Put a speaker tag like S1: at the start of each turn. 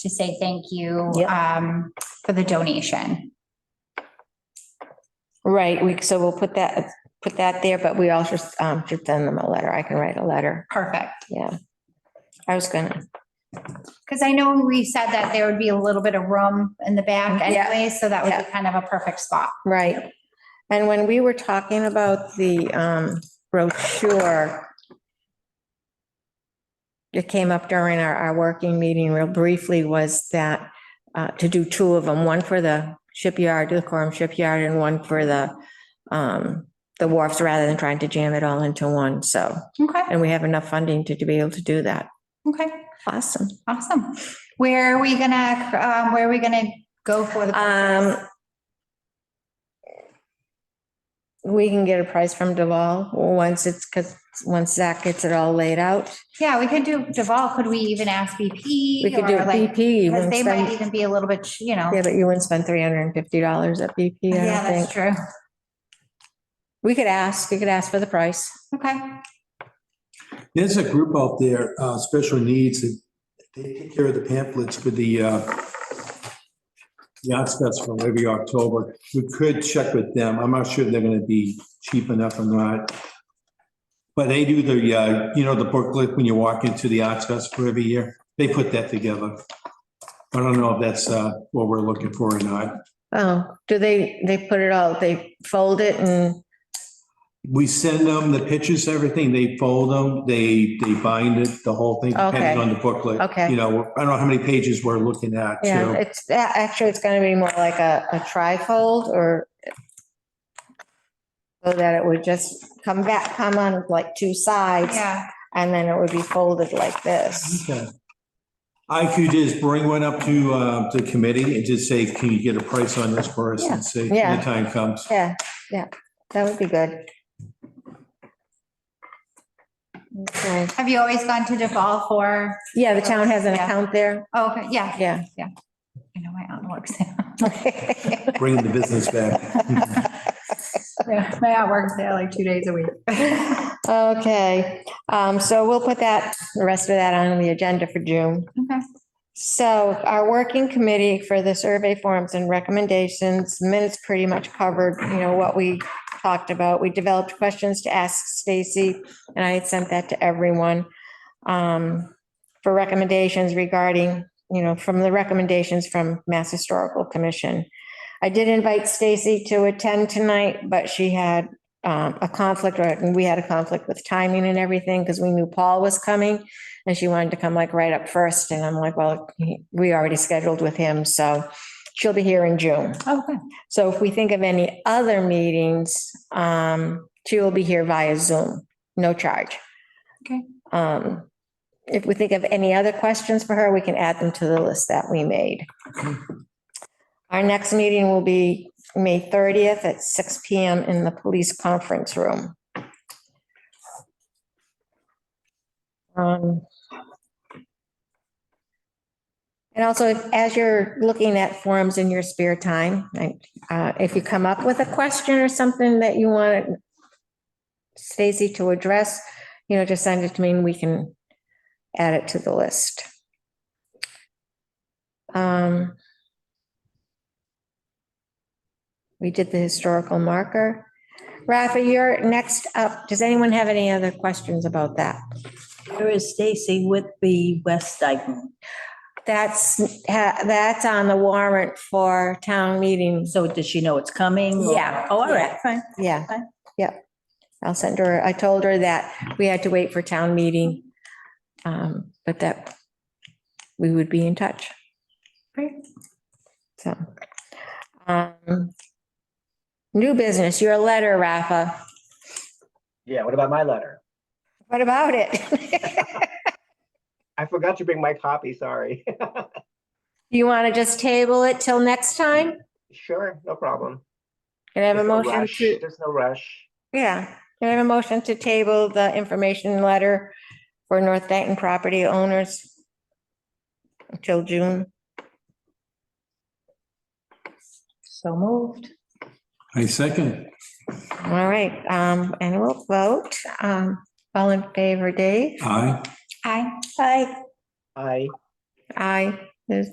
S1: to say thank you
S2: Yep.
S1: um, for the donation.
S2: Right, we, so we'll put that, put that there, but we also um, should send them a letter. I can write a letter.
S1: Perfect.
S2: Yeah. I was gonna,
S1: Because I know we said that there would be a little bit of room in the back
S2: Yeah.
S1: anyway, so that would
S2: Yeah.
S1: be kind of a perfect spot.
S2: right. And when we were talking about the um, brochure, it came up during our, our working meeting real briefly was that uh, to do two of them, one for the shipyard, the Corum Shipyard, and one for the um, the wharfs, rather than trying to jam it all into one. So,
S1: Okay,
S2: and we have enough funding to to be able to do that.
S1: okay,
S2: Awesome.
S1: awesome. Where are we gonna, um, where are we gonna go for the?
S2: Um, we can get a price from Deval once it's, because once Zach gets it all laid out,
S1: Yeah, we could do Deval. Could we even ask BP?
S2: we could do
S1: or
S2: it
S1: like-
S2: BP. you
S1: Because
S2: wouldn't
S1: they might
S2: spend-
S1: even be a little bit, you know.
S2: Yeah, but you wouldn't spend three hundred and fifty dollars at BP, I
S1: Yeah,
S2: don't
S1: that's
S2: think.
S1: true.
S2: We could ask, we could ask for the price.
S1: Okay,
S3: There's a group out there, uh, special needs, that they take care of the pamphlets for the, uh, the arts festival every October. We could check with them. I'm not sure they're gonna be cheap enough or not. But they do the, uh, you know, the booklet when you walk into the arts festival every year. They put that together. I don't know if that's, uh, what we're looking for or not.
S2: Oh, do they, they put it all, they fold it and,
S3: We send them the pictures, everything, they fold them, they, they bind it, the whole thing,
S2: Okay.
S3: depending on the booklet.
S2: Okay.
S3: You know, I don't know how many pages we're looking at,
S2: yeah,
S3: too.
S2: it's, a- actually, it's gonna be more like a, a trifold or so that it would just come back, come on like two sides.
S1: yeah,
S2: And then it would be folded like this.
S3: Okay. I could just bring one up to, uh, the committee and just say, can you get a price on this for us and see when
S2: Yeah.
S3: the time comes?
S2: Yeah, yeah, that would be good. Okay.
S1: have you always gone to Deval for,
S2: Yeah, the town has an
S1: Yeah.
S2: account there.
S1: oh, okay, yeah,
S2: Yeah.
S1: I know my aunt works
S3: Bring the business back.
S1: there. My aunt works there like two days a week. Okay,
S2: Okay, um, so we'll put that, the rest of that on the agenda for June. So our working committee for the survey forms and recommendations, minutes pretty much covered, you know, what we talked about. We developed questions to ask Stacy, and I had sent that to everyone um, for recommendations regarding, you know, from the recommendations from Mass Historical Commission. I did invite Stacy to attend tonight, but she had um, a conflict, or and we had a conflict with timing and everything because we knew Paul was coming. And she wanted to come like right up first. And I'm like, well, he- we already scheduled with him, so she'll be here in June.
S1: okay,
S2: So if we think of any other meetings, um, she will be here via Zoom, no charge.
S1: Okay.
S2: Um, if we think of any other questions for her, we can add them to the list that we made. Our next meeting will be May thirtieth at six P M in the police conference room. Um, And also, if- as you're looking at forums in your spare time, like, uh, if you come up with a question or something that you want Stacy to address, you know, just send it to me and we can add it to the list. Um, We did the historical marker. Rafa, you're next up. Does anyone have any other questions about that?
S4: Here is Stacy with the West Dyke.
S2: That's, ha- that's on the warrant for town meeting.
S4: So does she know it's coming? or-
S2: Yeah.
S4: Oh, all right, fine.
S2: Yeah,
S4: Okay.
S2: yeah. I'll send her, I told her that we had to wait for town meeting. um, But that we would be in touch,
S1: great.
S2: so. um, New business, your letter, Rafa.
S5: Yeah, what about my letter?
S2: What about it?
S5: I forgot to bring my copy, sorry.
S2: You want to just table it till next time?
S5: Sure, no problem.
S2: Can I have a
S5: There's no
S2: motion
S5: rush,
S2: to,
S5: There's no rush.
S2: yeah, can I have a motion to table the information letter for North Dayton property owners until June?
S4: So moved.
S3: I second.
S2: All right, um, and we'll vote. Um, all in favor, Dave?
S3: Aye.
S1: Hi,
S2: Aye.
S5: I,
S2: Aye, There's-